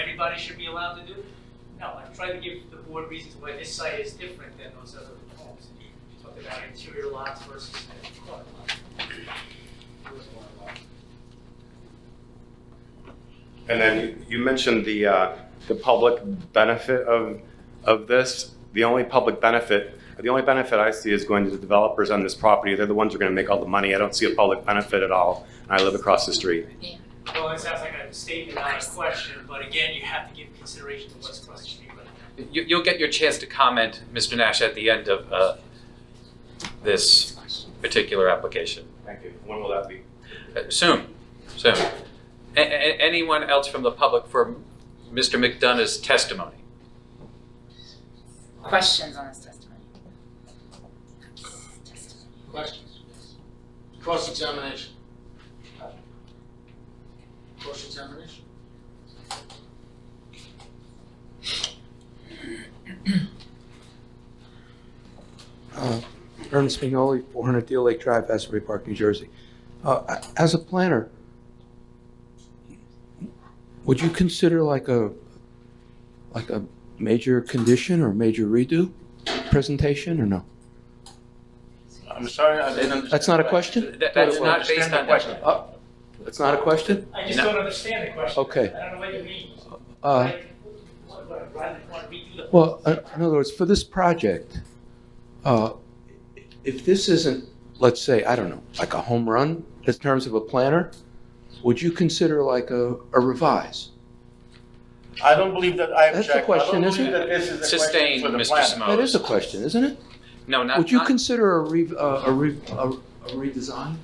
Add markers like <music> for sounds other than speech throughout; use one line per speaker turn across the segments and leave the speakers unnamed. everybody should be allowed to do? No, I've tried to give the board reasons why this site is different than those other homes. You Talked about interior lots versus the corner lot. Corner lot.
And then you you mentioned the, uh, the public benefit of, of this. The only public benefit, the only benefit I see is going to the developers on this property. They're the ones who are going to make all the money. I don't see a public benefit at all. And I live across the street.
Well, it sounds like a statement, not a question, but again, you have to give consideration to what's across the street. right now.
You, you'll get your chance to comment, Mr. Nash, at the end of uh, this particular application.
Thank you. When will that be?
Uh, Soon, soon. A- a- anyone else from the public for Mr. McDonough's testimony?
Questions on his testimony?
Questions? Cross-examination. Cross-examination?
Uh, Ernest Spignoli, 400 Deal Lake Drive, Asbury Park, New Jersey. Uh, As a planner, would you consider like a, like a major condition or major redo presentation or no?
I'm sorry, I didn't understand.
That's not a question?
That- that's
Well,
not based
understand the
on
question.
Uh, That's not a question?
I just
No.
don't understand the question.
Okay.
I don't know what you mean.
Uh,
Like, what- what, rather than want to redo the-
Well, uh, in other words, for this project, uh, if this isn't, let's say, I don't know, like a home run in terms of a planner, would you consider like a a revise?
I don't believe that I
That's
object.
the question,
I don't
isn't
believe that this is a question
Sustained,
for the
Mr.
plan.
Simoes.
That is a question, isn't it?
No, not.
Would you
not-
consider a re, a a re, a a redesign?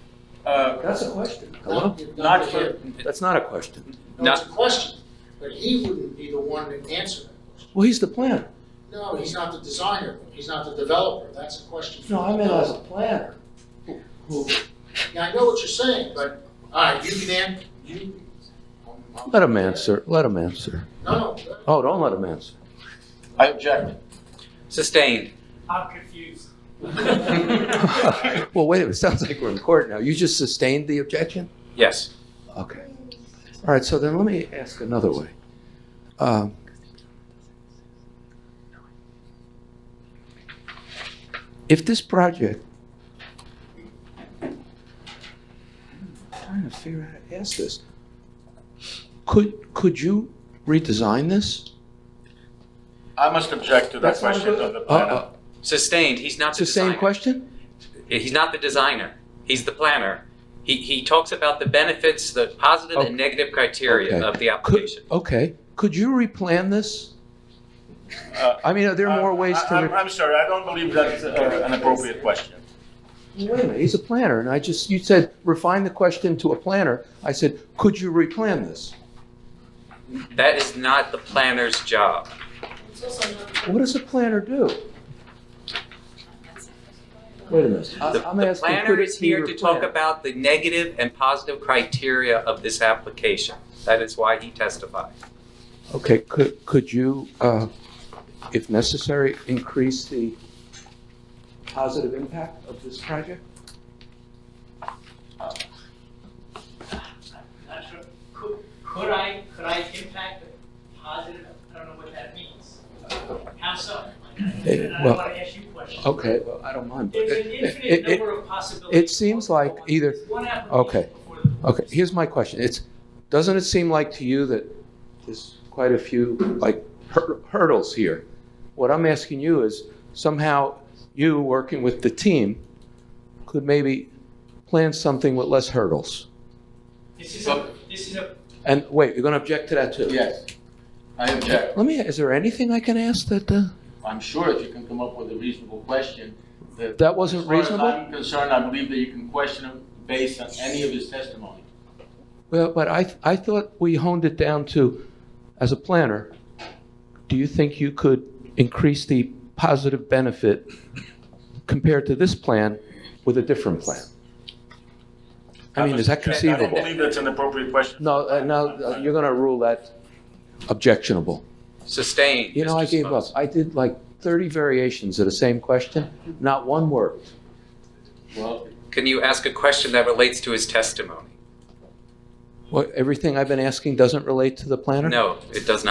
Uh,
That's a question. Hello?
Not for,
That's not a question.
No, it's a question, but he wouldn't be the one to answer that question.
Well, he's the planner.
No, he's not the designer, he's not the developer, that's a question. for
No, I meant as a planner. Who,
Yeah, I know what you're saying, but, all right, you can, an- you.
let him answer, let him answer.
No, no,
Oh, don't let him answer.
I object.
Sustained.
I'm
<laughs>
confused. <laughs>
Well, wait, a minute. it sounds like we're in court now. You just sustained the objection?
Yes.
Okay. All right, so then let me ask another way. Um, If this project, I'm trying to figure out how to ask this, could, could you redesign this?
I must object to that
That's not a
question
good-
of the
Uh,
planner.
uh,
Sustained. He's not
It's
the
the same
designer.
question?
He's not the designer. He's the planner. He, he talks about the benefits, the positive
Okay.
and negative criteria
Okay.
of the
Could,
application.
okay, could you replan this?
Uh,
I mean, are there more ways to?
I-
re-
I'm, I'm sorry, I don't believe that's uh, an appropriate question.
Well, Wait a minute, he's a planner, and I just, you said refine the question to a planner. I said, could you replan this?
That is not the planner's job.
What does a planner do? Wait a minute. I-
The,
Uh, I'm
the
asking,
planner
could it
is
be
here to talk
replan-
about the negative and positive criteria of this application. That is why he testified.
Okay, could, could you, uh, if necessary, increase the positive impact of this project?
Not sure, could, could I, could I impact the positive, I don't know what that means. How so? I
Eh,
don't
well,
want to ask you questions.
Okay, well, I don't mind. but
There's an
it-
infinite
it- it-
number of possibilities.
it seems like either-
There's one application
okay.
before the board.
Okay, here's my question. It's, doesn't it seem like to you that there's quite a few, like, hur- hurdles here? What I'm asking you is somehow you, working with the team, could maybe plan something with less hurdles.
This is a, this is a,
And wait, you're going to object to that too?
Yes, I object.
Let me, is there anything I can ask that, uh,
I'm sure if you can come up with a reasonable question, that.
That wasn't reasonable?
As far as I'm concerned, I believe that you can question him based on any of his testimony.
well, but I, I thought we honed it down to, as a planner, do you think you could increase the positive benefit compared to this plan with a different plan? I mean, is that
must object. I don't
conceivable?
believe that's an appropriate question.
No, uh, no, uh, you're going to rule that objectionable.
Sustained.
You know,
Mr.
I gave up.
Simoes.
I did like 30 variations of the same question, not one worked.
Well,
Can you ask a question that relates to his testimony?
What, everything I've been asking doesn't relate to the planner?
No, it does not.